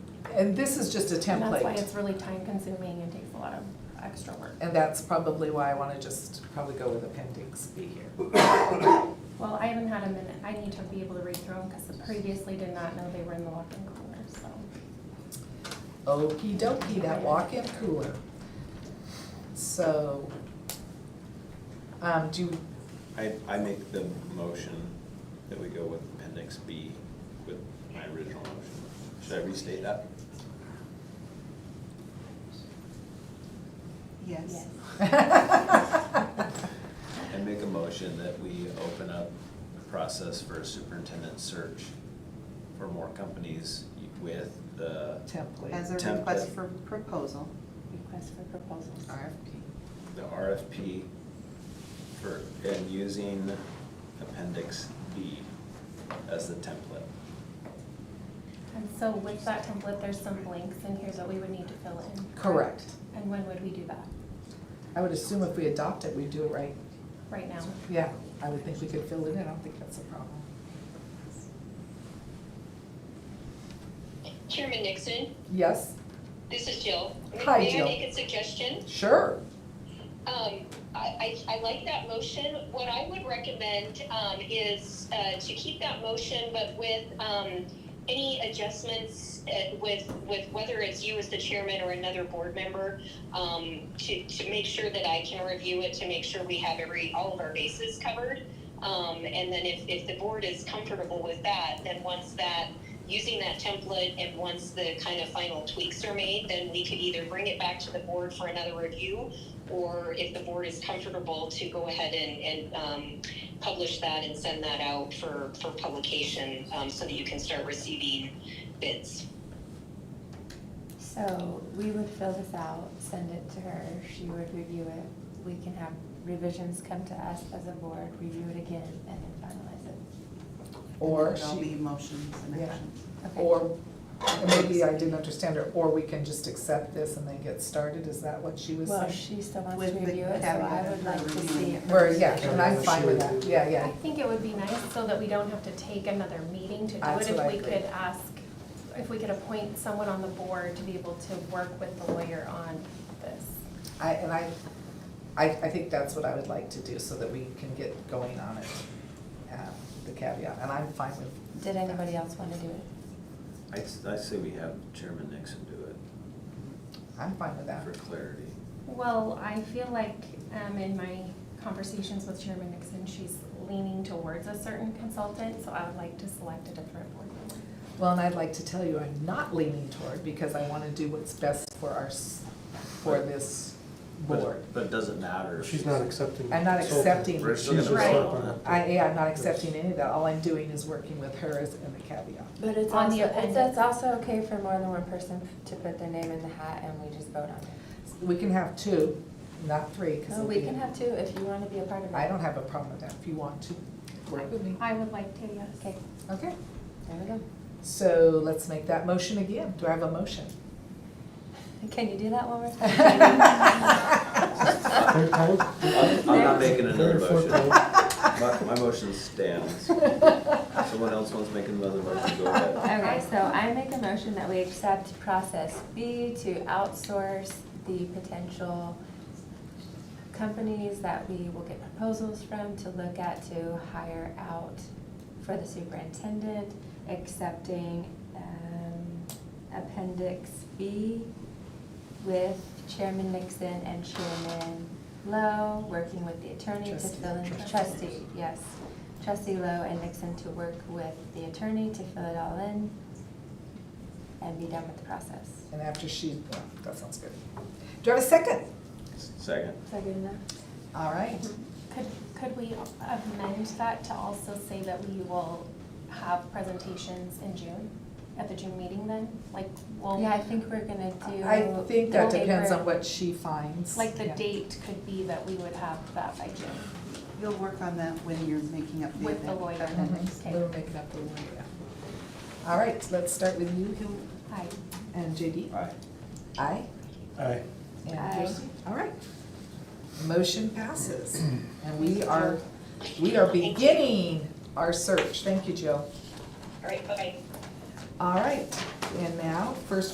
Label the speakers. Speaker 1: And this is just a
Speaker 2: And that's why
Speaker 1: template,
Speaker 2: it's really time consuming and takes a lot of extra work.
Speaker 1: and that's probably why I wanna just probably go with appendix B here.
Speaker 2: Well, I haven't had a minute, I need to be able to read through them because I previously did not know they were in the walk-in cooler, so.
Speaker 1: Okey dokey, that walk-in cooler. So, um, do, you-
Speaker 3: I, I make the motion that we go with appendix B with my original motion. Should I restate that?
Speaker 4: Yes.
Speaker 3: I make a motion that we open up the process for a superintendent search for more companies with the
Speaker 1: template,
Speaker 4: As a
Speaker 3: Template.
Speaker 4: request for proposal.
Speaker 2: Request for proposals.
Speaker 1: RFP.
Speaker 3: the RFP for, and using appendix B as the template.
Speaker 2: And so with that template, there's some blanks in here that we would need to fill in.
Speaker 1: Correct.
Speaker 2: And when would we do that?
Speaker 1: I would assume if we adopt it, we do it right.
Speaker 2: Right now?
Speaker 1: Yeah, I would think we could fill it in, I don't think that's a problem.
Speaker 5: Chairman Nixon,
Speaker 1: Yes,
Speaker 5: this is Jill.
Speaker 1: Hi,
Speaker 5: May
Speaker 1: Jill.
Speaker 5: I make a suggestion?
Speaker 1: sure,
Speaker 5: Um, I, I, I like that motion. What I would recommend, um, is, uh, to keep that motion, but with, um, any adjustments, uh, with, with whether it's you as the chairman or another board member, um, to, to make sure that I can review it, to make sure we have every, all of our bases covered. Um, and then if, if the board is comfortable with that, then once that, using that template and once the kind of final tweaks are made, then we could either bring it back to the board for another review, or if the board is comfortable to go ahead and, and, um, publish that and send that out for, for publication, um, so that you can start receiving bids.
Speaker 6: So we would fill this out, send it to her, she would review it. We can have revisions come to us as a board, review it again, and then finalize it.
Speaker 1: or
Speaker 4: There'll be
Speaker 1: she,
Speaker 4: motions and
Speaker 1: Yeah.
Speaker 4: actions.
Speaker 6: Okay.
Speaker 1: or, and maybe I didn't understand her, or we can just accept this and then get started, is that what she was
Speaker 6: Well,
Speaker 1: saying?
Speaker 6: she still wants to
Speaker 4: With the
Speaker 6: review it, so
Speaker 4: caveat
Speaker 6: I
Speaker 4: of
Speaker 6: would
Speaker 4: her
Speaker 6: like to
Speaker 4: reviewing
Speaker 6: see
Speaker 4: it.
Speaker 6: it.
Speaker 1: Where,
Speaker 6: first.
Speaker 1: yeah, and I'm fine with that, yeah,
Speaker 2: I
Speaker 1: yeah,
Speaker 2: think it would be nice so that we don't have to take another meeting to do
Speaker 1: That's
Speaker 2: it. If
Speaker 1: what I
Speaker 2: we
Speaker 1: think.
Speaker 2: could ask, if we could appoint someone on the board to be able to work with the lawyer on this.
Speaker 1: I, and I, I, I think that's what I would like to do, so that we can get going on it, uh, the caveat, and I'm fine with.
Speaker 6: Did anybody else want to do it?
Speaker 3: I, I say we have Chairman Nixon do it
Speaker 1: I'm fine with that,
Speaker 3: for clarity.
Speaker 2: Well, I feel like um, in my conversations with Chairman Nixon, she's leaning towards a certain consultant, so I would like to select a different board member.
Speaker 1: well, and I'd like to tell you, I'm not leaning toward, because I wanna do what's best for our, s- for this
Speaker 3: But-
Speaker 1: board.
Speaker 3: But it doesn't matter. if
Speaker 7: She's not accepting.
Speaker 1: I'm not accepting.
Speaker 3: We're
Speaker 7: She's
Speaker 3: still gonna
Speaker 7: just
Speaker 2: Right.
Speaker 7: not gonna-
Speaker 1: I, yeah, I'm not accepting any of that, all I'm doing is working with her as, in the caveat.
Speaker 6: But it's
Speaker 2: On
Speaker 6: also,
Speaker 2: the
Speaker 6: it's-
Speaker 2: appendix.
Speaker 6: that's also okay for more than one person to put their name in the hat and we just vote on it.
Speaker 1: We can have two, not three, because
Speaker 6: No, Oh, we can have two if you want to be a part of it.
Speaker 1: I don't have a problem with that, if you want to work with me.
Speaker 2: I would like to, yes.
Speaker 6: Okay,
Speaker 1: Okay,
Speaker 6: there we go.
Speaker 1: so let's make that motion again, do I have a motion?
Speaker 6: Can you do that one more time?
Speaker 7: Third time?
Speaker 3: I'm I'm not making another
Speaker 7: Third or fourth
Speaker 3: motion.
Speaker 7: time?
Speaker 3: My, my motion stands. Someone else wants to make another motion, go ahead.
Speaker 6: Okay, so I make a motion that we accept process B to outsource the potential companies that we will get proposals from to look at to hire out for the superintendent, accepting um, appendix B with Chairman Nixon and Chairman Lowe, working with the attorney to
Speaker 1: Trustee.
Speaker 6: fill in, trustee, yes. Trustee Lowe and Nixon to work with the attorney to fill it all in and be done with the process.
Speaker 1: And after she, well, that sounds good. Do I have a second?
Speaker 3: Second.
Speaker 6: Is that good enough?
Speaker 1: All right,
Speaker 2: Could, could we amend that to also say that we will have presentations in June, at the June meeting then? Like,
Speaker 6: Yeah, I
Speaker 2: well,
Speaker 6: think we're gonna do.
Speaker 1: I think that
Speaker 6: the
Speaker 1: depends on
Speaker 6: paper.
Speaker 1: what she finds.
Speaker 2: like the
Speaker 1: Yeah.
Speaker 2: date could be that we would have that by June.
Speaker 4: You'll work on that when you're making up the.
Speaker 2: With the lawyer.
Speaker 4: appendix.
Speaker 1: Mhm, We'll make it up the way, yeah. All right, let's start with you, Hill
Speaker 2: I,
Speaker 1: and JD.
Speaker 3: Aye.
Speaker 1: Aye?
Speaker 7: Aye.
Speaker 1: And
Speaker 6: Aye.
Speaker 1: Kirsten? All right. Motion passes, and we are, we are beginning our search. Thank you, Jill.
Speaker 5: All right, bye-bye.
Speaker 1: All right, and now, first